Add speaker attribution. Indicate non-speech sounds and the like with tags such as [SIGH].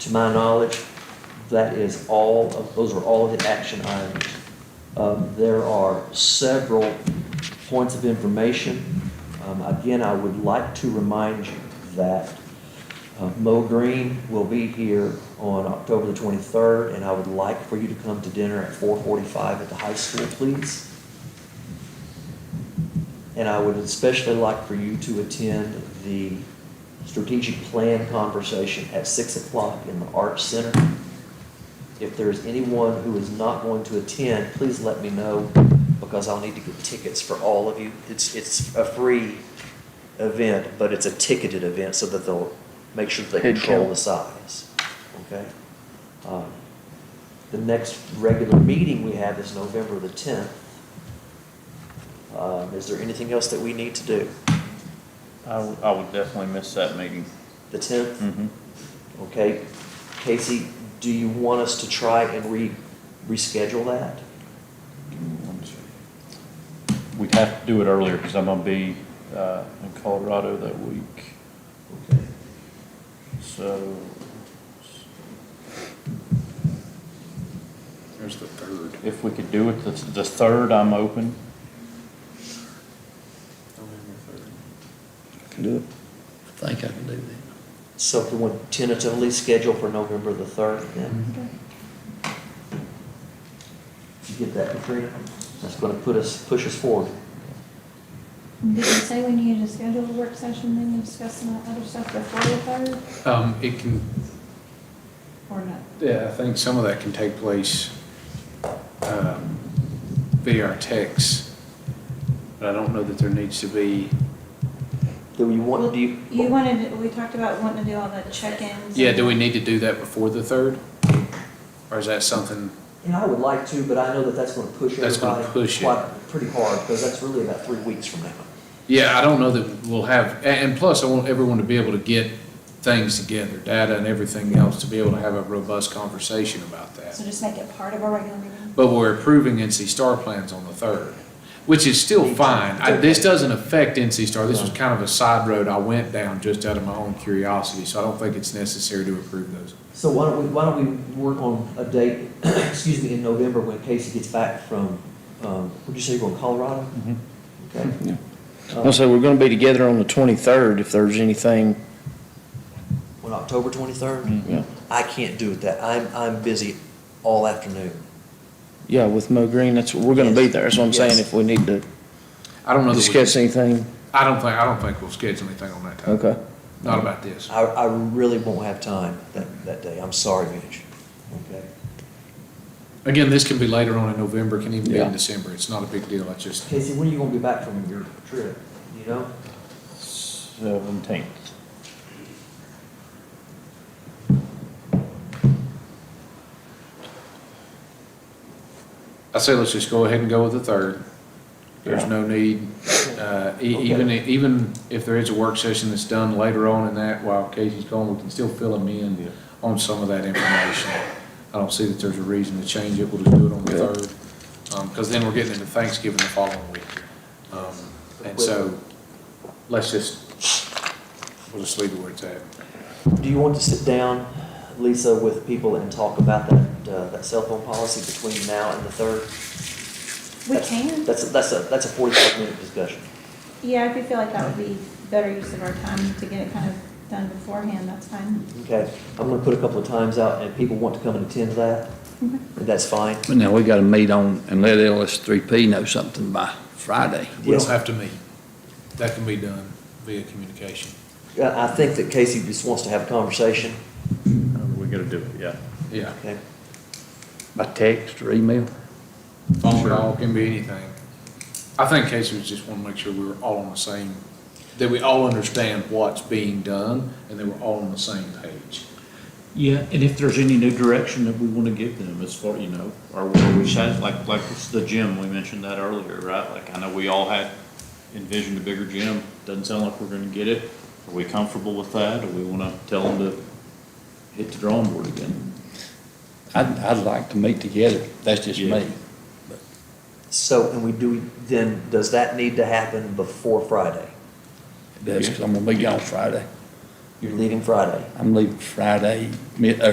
Speaker 1: To my knowledge, that is all, of those are all of the action items. Um, There are several points of information. Um, Again, I would like to remind you that uh, Mo Green will be here on October the 23rd, and I would like for you to come to dinner at 4:45 at the high school, please. And I would especially like for you to attend the strategic plan conversation at 6 o'clock in the Arts Center. If there's anyone who is not going to attend, please let me know, because I'll need to get tickets for all of you. It's, it's a free event, but it's a ticketed event, so that they'll make sure they
Speaker 2: Head
Speaker 1: control
Speaker 2: count.
Speaker 1: the size, okay? Um, The next regular meeting we have is November the 10th. Um, Is there anything else that we need to do?
Speaker 2: I, w- I would definitely miss that meeting.
Speaker 1: The 10th?
Speaker 3: Mm-hmm.
Speaker 2: Mhm.
Speaker 1: Okay. Casey, do you want us to try and re, reschedule that?
Speaker 2: Give me one second. We'd have to do it earlier because I'm gonna be, uh, in Colorado that week,
Speaker 1: Okay.
Speaker 2: so.
Speaker 4: There's the third.
Speaker 2: If we could do it, the, the third, I'm open.
Speaker 4: November third.
Speaker 3: Can do it. I think I can do that.
Speaker 1: So can we tentatively schedule for November the 3rd then? You get that, Katrina? That's going to put us, push us forward.
Speaker 5: Did you say we needed to schedule a work session then and discuss some of that other stuff before the third
Speaker 4: Um, it can,
Speaker 5: or not?
Speaker 4: yeah, I think some of that can take place, um, via our texts. But I don't know that there needs to be,
Speaker 1: Do you want, do you?
Speaker 5: You wanted, we talked about wanting to do all the check-ins.
Speaker 4: yeah, do we need to do that before the third? Or is that something,
Speaker 1: And I would like to, but I know that that's going to push
Speaker 4: That's gonna
Speaker 1: everybody
Speaker 4: push it.
Speaker 1: quite, pretty hard, because that's really about three weeks from now.
Speaker 4: yeah, I don't know that we'll have, a- and plus I want everyone to be able to get things together, data and everything else, to be able to have a robust conversation about that.
Speaker 5: So just make it part of our regular meeting?
Speaker 4: but we're approving NC Star plans on the third, which is still fine. I- This doesn't affect NC Star, this was kind of a side road I went down just out of my own curiosity, so I don't think it's necessary to approve those.
Speaker 1: So why don't we, why don't we work on a date, [CLEARS THROAT] excuse me, in November when Casey gets back from, um, what'd you say, you're going to Colorado? Okay.
Speaker 2: Uh,
Speaker 1: Um,
Speaker 3: I'll say we're gonna be together on the twenty-third if there's anything,
Speaker 1: On October twenty-third?
Speaker 2: Mm.
Speaker 3: yeah,
Speaker 1: I can't do it that, I'm, I'm busy all afternoon.
Speaker 3: yeah, with Mo Green, that's, we're gonna be there, that's what I'm saying,
Speaker 1: Yes.
Speaker 3: if we need to
Speaker 4: I don't know that
Speaker 3: discuss
Speaker 4: we,
Speaker 3: anything,
Speaker 4: I don't think, I don't think we'll schedule anything on that time,
Speaker 3: okay.
Speaker 4: not about this.
Speaker 1: I, I really won't have time that, that day, I'm sorry, Mitch. Okay.
Speaker 4: Again, this can be later on in November, can even be
Speaker 3: Yeah.
Speaker 4: in December, it's not a big deal, it's just,
Speaker 1: Casey, when are you gonna be back from your trip, Do you know?
Speaker 2: Seventeenth.
Speaker 4: I say let's just go ahead and go with the third. There's
Speaker 2: Yeah.
Speaker 4: no need, uh, e-
Speaker 1: Okay.
Speaker 4: even, even if there is a work session that's done later on in that, while Casey's gone, we can still fill him in on some of that information. I don't see that there's a reason to change it, we'll just do it on the
Speaker 3: Yeah.
Speaker 4: third, um, because then we're getting into Thanksgiving the following week. Um, And so, let's just, we'll just leave it where it's at.
Speaker 1: Do you want to sit down, Lisa, with people and talk about that, uh, that cell phone policy between now and the third?
Speaker 5: We can,
Speaker 1: That's, a- that's a, that's a forty-five minute discussion.
Speaker 5: yeah, if you feel like that would be better use of our time to get it kind of done beforehand, that's fine.
Speaker 1: Okay, I'm gonna put a couple of times out, and if people want to come and attend that, that's fine.
Speaker 6: But now we gotta meet on, and let LS3P know something by Friday.
Speaker 4: We
Speaker 1: Yes.
Speaker 4: don't have to meet, that can be done via communication.
Speaker 1: I, I think that Casey just wants to have a conversation,
Speaker 2: Uh, We gotta do it, yeah.
Speaker 4: Yeah,
Speaker 1: okay?
Speaker 6: By text or email?
Speaker 4: phone call can be anything. I think Casey was just wanting to make sure we were all on the same, that we all understand what's being done and that we're all on the same page.
Speaker 2: Yeah, and if there's any new direction that we want to give them as far, you know, or where we should, like, like it's the gym, we mentioned that earlier, right? Like, I know we all had envisioned a bigger gym, doesn't sound like we're gonna get it. Are we comfortable with that? Or we want to tell them to hit the drawing board again?
Speaker 6: I'd, I'd like to meet together, that's just
Speaker 2: Yeah.
Speaker 6: me.
Speaker 1: So, and we do, then, does that need to happen before Friday?
Speaker 6: That's, 'cause I'm gonna be gone Friday.
Speaker 1: You're leaving Friday?
Speaker 6: I'm leaving Friday, mid, uh,